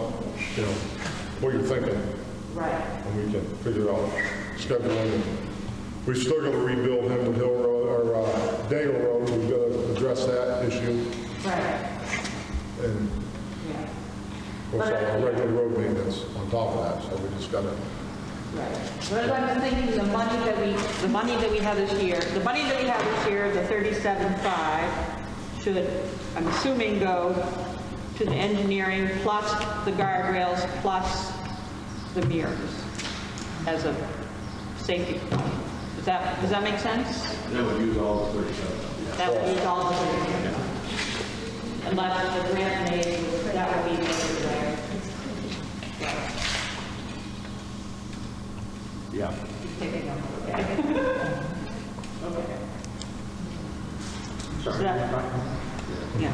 you know, what you're thinking, Right. and we can figure out scheduling. We're still gonna rebuild Hemlock Hill Road, or uh, Dangle Road, we've gotta address that issue, Right, and of yeah, course, our regular road maintenance on top of that, so we just gotta, right. But I'm just thinking, the money that we, the money that we have this year, the money that we have this year, the 37.5, should, I'm assuming, go to the engineering plus the guardrails plus the mirrors as a safety. plan. Does that, does that make sense? That would use all the 37. That would be all of it. Unless the grant made, that would be everywhere. Yeah. Taking them, okay. Okay. So that- Yeah.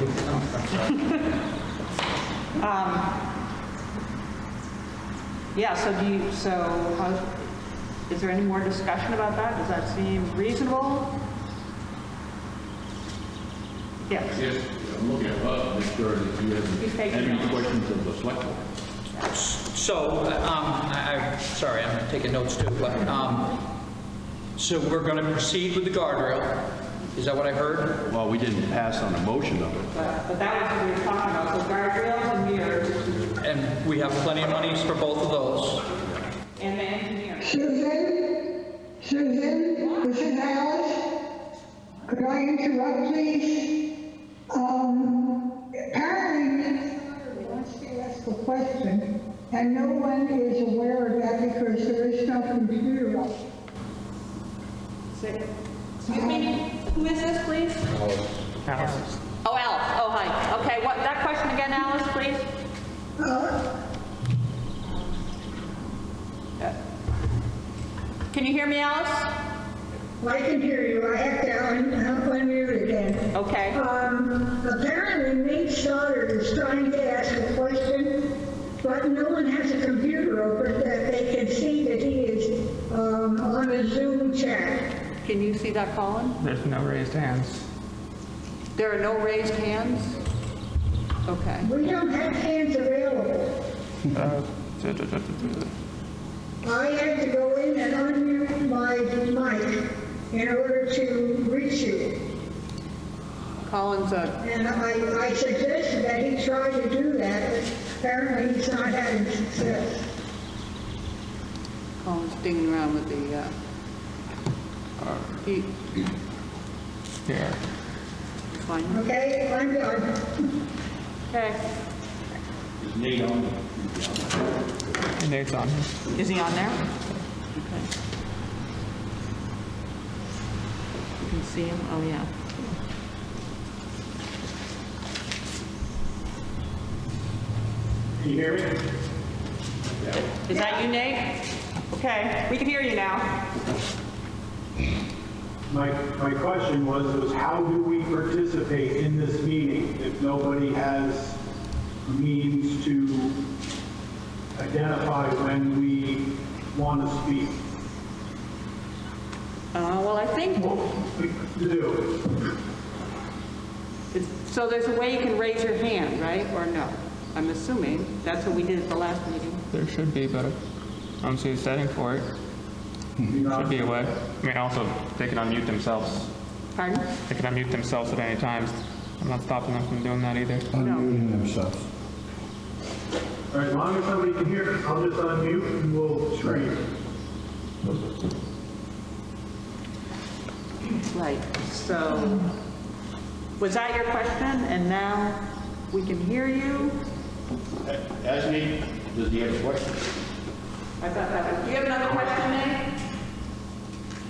Um, Yeah, so do you, so how, is there any more discussion about that? Does that seem reasonable? Yes. Yes, I'm looking at Bud, make sure that you He's have taking any notes. questions of the select board. So, um, I, I'm sorry, I'm taking notes too, but, um, so we're going to proceed with the guardrail. Is that what I heard? Well, we didn't pass on a motion of it. But but that was what we were talking about, so guardrails and mirrors And we have plenty of monies for both of those. and the engineering. Susan? Susan, this is Alice. Could I interrupt, please? Um, apparently, Mr. wants to ask a question, and no one is aware of that because there is no computer up. Excuse me, who is this, please? uh, Oh, Alice, oh, hi. Okay, what, that question again, Alice, please? Can you hear me, Alice? I can hear you, I have to un- unmute again. Okay, Um, apparently Nate Stoddard is trying to ask a question, but no one has a computer open that they can see that he is, um, on a Zoom chat. can you see that, Colin? There's no raised hands. There are no raised hands? Okay. We don't have hands available. Uh, duh, duh, duh, duh, duh. I had to go in and unmute my mic in order to reach you. Colin's a, And I, I suggested that he try to do that, but apparently he's not having success. Colin's dinging around with the, uh, he, Here. fine. Okay, I'm done. Okay. Is Nate on? Nate's on. Is he on there? Okay. You can see him, oh, yeah. Can you hear me? Is that you, Nate? Okay, we can hear you now. My, my question was, was how do we participate in this meeting if nobody has means to identify when we want to speak? Uh, Well, I think, What to do? it's- so there's a way you can raise your hand, right, or no? I'm assuming, that's what we did at the last meeting. There should be, but I don't see a setting for it. Should be a way. I mean, also, they can unmute themselves. Pardon? They can unmute themselves at any time. I'm not stopping them from doing that either. unmuting themselves. All right, as long as somebody can hear, I'll just unmute and we'll screen. Right, so, was that your question? And now we can hear you? As Nate, does he have a question? I thought that was, do you have another question, Nate?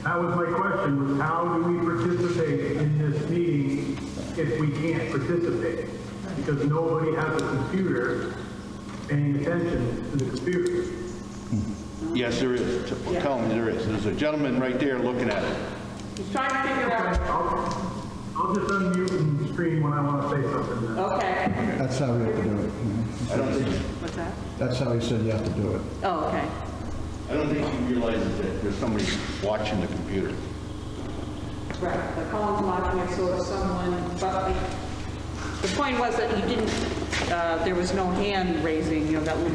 That was my question, was how do we participate in this meeting if we can't participate? Because nobody has a computer paying attention to the computer. Yes, there is. T- Tell him there is. There's a gentleman right there looking at it. He's trying to figure out, I'll I'll just unmute and scream when I want to say something then. okay. That's how you have to do it. I don't think, What's that? That's how he said you have to do it. Oh, okay. I don't think he realizes that there's somebody watching the computer. Right, the Collins Lodge next door to someone, but the- the point was that you didn't, uh, there was no hand raising, you know, that little